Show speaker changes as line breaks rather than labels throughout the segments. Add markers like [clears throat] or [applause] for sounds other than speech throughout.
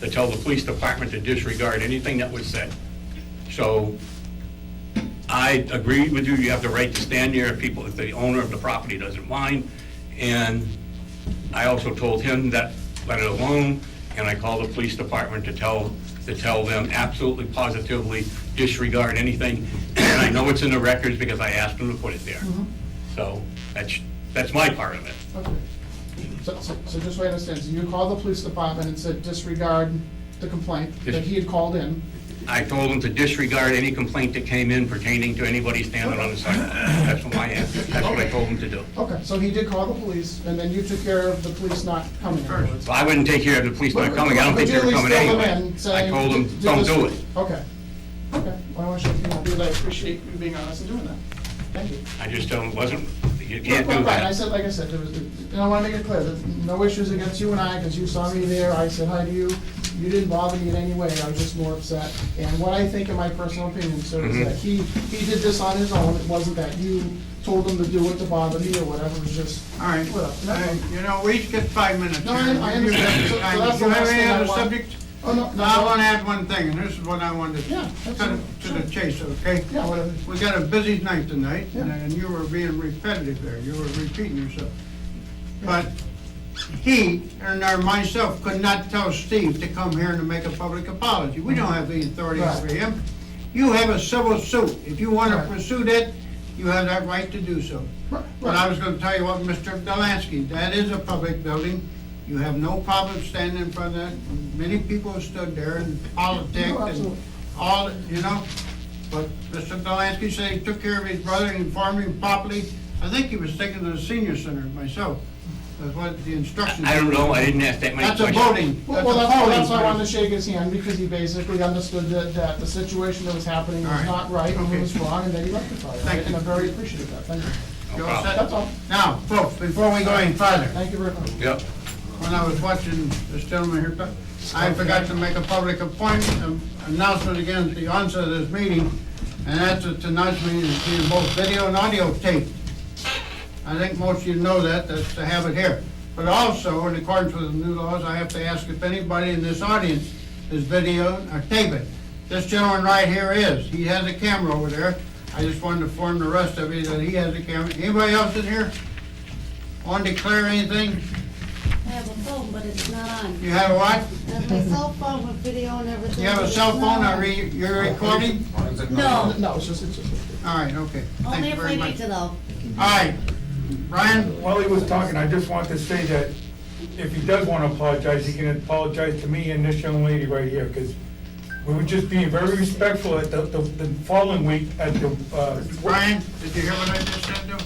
to tell the police department to disregard anything that was said. So I agree with you, you have the right to stand there if people, if the owner of the property doesn't mind. And I also told him that, let it alone, and I called the police department to tell, to tell them absolutely positively disregard anything. And I know it's in the records because I asked them to put it there. So that's, that's my part of it.
Okay. So, so so just so I understand, so you called the police department and said disregard the complaint that he had called in.
I told them to disregard any complaint that came in pertaining to anybody standing on the sidewalk. That's what my, that's what I told them to do.
Okay, so he did call the police, and then you took care of the police not coming afterwards.
Well, I wouldn't take care of the police not coming, I don't think they were
But you at
coming
least filled
anyway.
them in,
I
saying,
told them,
"Do
don't
this."
do it.
Okay, okay. Well, I want you to know that I appreciate you being honest and doing that. Thank you.
I just told them, it wasn't, you can't
Right,
do
Right, I said,
that.
like I said, there was, and I wanna make it clear, there's no issues against you and I, because you saw me there, I said hi to you. You didn't bother me in any way, I was just more upset. And what I think, in my personal opinion, sir, is that he,
Mm-hmm.
he did this on his own, it wasn't that you told him to do it to bother me or whatever, it was just.
All right,
Whatever.
all right, you know, we each get five minutes.
No, I- I understand. So- so that's the
Do you
last
have
thing
any
I
other
want.
subject?
Oh, no, no,
I
no.
want to add one thing, and this is what I wanted to,
Yeah,
to the-
absolutely.
to the
Sure.
chase, okay?
Yeah, whatever.
We got a busy night tonight, and-
Yeah.
and you were being repetitive there, you were repeating yourself. But he, and or myself, could not tell Steve to come here and to make a public apology. We don't have the authority
Right.
over him. You have a civil suit. If you want to
Right.
pursue that, you have that right to do so.
Right,
But I
right.
was gonna tell you what, Mr. Delansky, that is a public building. You have no problem standing in front of that. Many people have stood there and politics and
absolutely.
all, you know? But Mr. Delansky said he took care of his brother and informed him properly. I think he was taken to the senior center myself. That's what the instructions.
I don't know, I didn't ask that many
That's a
questions.
voting,
Well,
that's a
well, that's, well, that's why I
voting.
wanted to shake his hand, because he basically understood that, that the situation that was happening
All
was
right.
not right, and
Okay.
it was wrong, and that he rectified
Thank
it. And
you.
I'm very appreciative of that, thank you.
No
You're
problem.
all set?
That's all.
Now, folks, before we go any further,
Thank you very much.
Yep,
when I was watching this gentleman here, but I forgot to make a public appointment, um, announcement again at the onset of this meeting, and that's that tonight's meeting is being both video and audio taped. I think most of you know that, that's the habit here. But also, in accordance with the new laws, I have to ask if anybody in this audience is video or taping. This gentleman right here is, he has a camera over there. I just wanted to inform the rest of you that he has a camera. Anybody else in here want to declare anything?
I have a phone, but it's not on.
You have a what?
I have my cell phone with video and everything.
You have
but
a
it's
cell phone,
not
are
on.
you, you're recording?
No,
No, it's just, it's just.
All right, okay. Thank
only
you
if
very
we
much.
need to though.
All right, Brian,
While he was talking, I just want to say that if he does want to apologize, he can apologize to me and this young lady right here, because we were just being very respectful at the, the the following week at the, uh,
Brian, did you hear what I just said to him?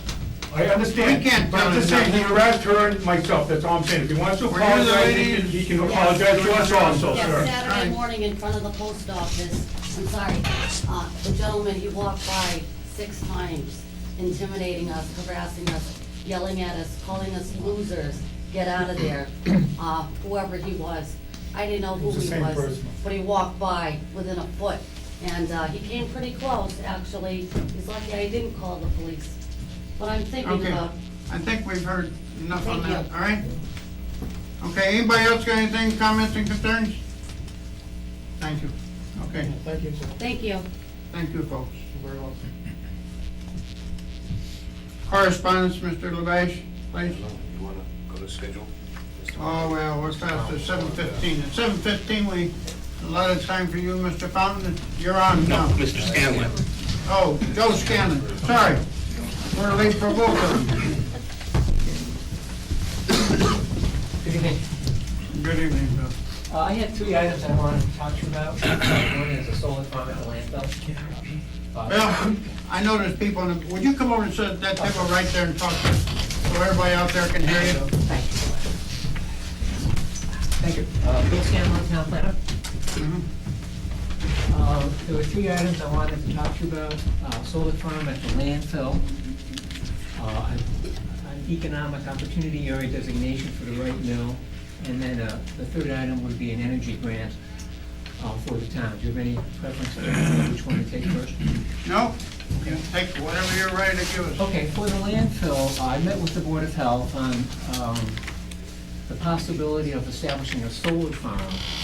I understand.
We can't
But I'm just
tell him
saying, he harassed her and myself, that's all I'm saying. If he wants to
Were you the
apologize,
lady?
he can- he can apologize to us also,
Yes,
sir.
All right.
Saturday morning in front of the post office, I'm sorry, uh, the gentleman, he walked by six times, intimidating us, harassing us, yelling at us, calling us losers, get out of
[clears throat]
there, uh, whoever he was. I didn't know who
It's the
he
same
was,
person.
but he walked by within a foot, and, uh, he came pretty close, actually. He's lucky I didn't call the police. What I'm thinking
Okay,
about,
I think we've heard enough on
Thank
that,
you.
all right? Okay, anybody else got anything, comments and concerns? Thank you. Okay,
Thank you, sir.
thank you.
thank you, folks.
Very welcome.
Correspondence, Mr. Levash, please.
You wanna go to schedule?
Oh, well, we're past the seven fifteen. At seven fifteen, we, a lot of time for you, Mr. Fountain, you're on
no,
now.
Mr. Scanlon.
Oh, Joe Scanlon, sorry. We're late for both of them.
Good evening.
Good evening, Bill.
Uh, I had three items I wanted to talk to you about. [coughs] One is a solar farm at the landfill. Uh,
Bill, I know there's people in the, would you come over and sit at that table right there and talk to us? So everybody out there can hear you.
Thank you. Thank you. Mm-hmm. Uh, Bill Scanlon, town planner.
Mhm.
Um, There were three items I wanted to talk to you about. Uh, Solar farm at the landfill. uh, An economic opportunity area designation for the right mill. And then uh, the third item would be an energy grant uh, for the town. Do you have any preference on which one to take first?
No? You can take whatever you're ready to give us.
Okay, for the landfill, I met with the Board of Health on um, the possibility of establishing a solar farm